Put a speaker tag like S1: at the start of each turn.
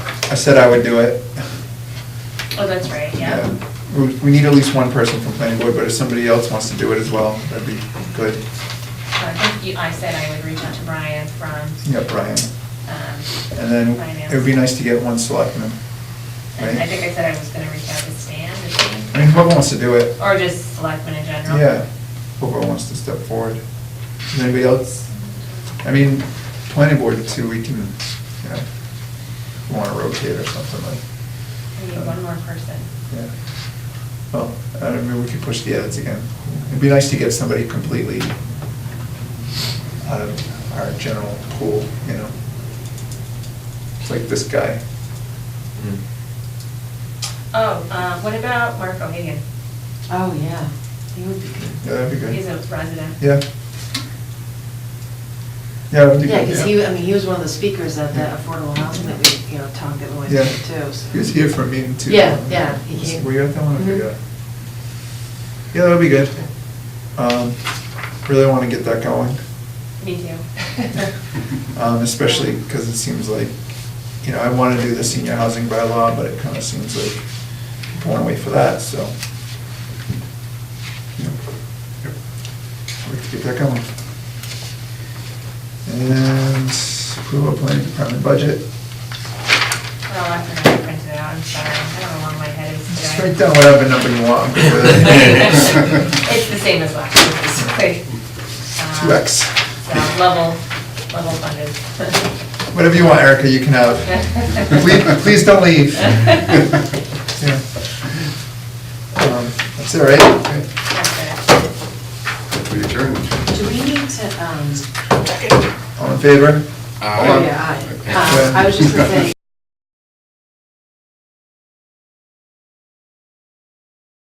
S1: I said I would do it.
S2: Oh, that's right, yeah.
S1: We- We need at least one person from planning board, but if somebody else wants to do it as well, that'd be good.
S2: I think you, I said I would reach out to Brian from,
S1: Yeah, Brian.
S2: um,
S1: And then
S2: Finance.
S1: it would be nice to get one selectman.
S2: And I
S1: right?
S2: think I said I was gonna reach out to Stan, is he?
S1: I mean, whoever wants to do it,
S2: Or just selectmen in general?
S1: yeah, whoever wants to step forward. Does anybody else? I mean, planning board too, we can, you know, want to rotate or something like.
S2: We need one more person.
S1: Yeah. Well, I don't know, we could push the edits again. It'd be nice to get somebody completely out of our general pool, you know? It's Like this guy.
S2: Oh, uh, what about Mark O'Hagan?
S3: Oh, yeah, he would be
S1: Yeah, that'd be good.
S2: He's a resident.
S1: Yeah. Yeah, that'd be
S3: good. Yeah,
S1: good,
S3: because
S1: yeah.
S3: he, I mean, he was one of the speakers at the affordable housing that we, you know, Tom Gittlewick went
S1: Yeah.
S3: to, too. so-
S1: He was here for a meeting too.
S3: Yeah, yeah, he
S1: Was-
S3: came.
S1: Were you at that one? I
S3: Mhm.
S1: forgot. Yeah, that'd be good. Um, Really want to get that going.
S2: Me too.
S1: Um, especially because it seems like, you know, I want to do the senior housing bylaw, but it kind of seems like I'm going away for that, so. you know, yep, We have to get that going. And approval of planning department budget.
S2: Well, I forgot to print it out, I'm sorry, I don't know where my head is today.
S1: Just write down whatever number you want. I'm good with it.
S2: It's the same as last year, basically. Um,
S1: Two X.
S2: So, level, level funded.
S1: Whatever you want, Erica, you can have. Please, please don't leave. Yeah. Um, That's all right.
S2: That's it.
S4: We adjourn.
S3: Do we need to, um, oh,
S1: All in favor?
S3: yeah, I, um, I was just gonna say,